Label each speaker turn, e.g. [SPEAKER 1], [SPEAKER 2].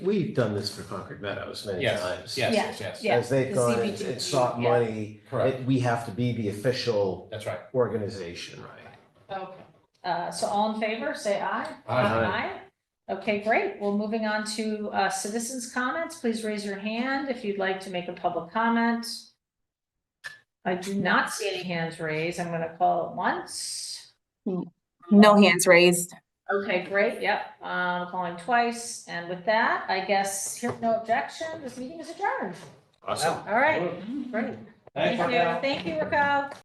[SPEAKER 1] We've done this for Concord Meadows many
[SPEAKER 2] Yes,
[SPEAKER 1] times.
[SPEAKER 2] yes, yes, yes,
[SPEAKER 1] As they've
[SPEAKER 3] the
[SPEAKER 1] gone and
[SPEAKER 3] CBGB,
[SPEAKER 1] and sought
[SPEAKER 3] yeah.
[SPEAKER 1] money,
[SPEAKER 2] correct,
[SPEAKER 1] it- we have to be the official
[SPEAKER 2] that's right.
[SPEAKER 1] organization. Right.
[SPEAKER 3] Okay, uh, so all in favor, say aye.
[SPEAKER 1] Aye.
[SPEAKER 3] Aye. Okay, great. Well, moving on to, uh, citizens' comments, please raise your hand if you'd like to make a public comment. I do not see any hands raised. I'm gonna call it once.
[SPEAKER 4] No hands raised.
[SPEAKER 3] Okay, great, yep, um, calling twice, and with that, I guess, here, no objection, this meeting is adjourned.
[SPEAKER 1] Awesome.
[SPEAKER 3] All right, great.
[SPEAKER 2] Thank
[SPEAKER 3] Thank
[SPEAKER 2] you.
[SPEAKER 3] you, thank you, Rico.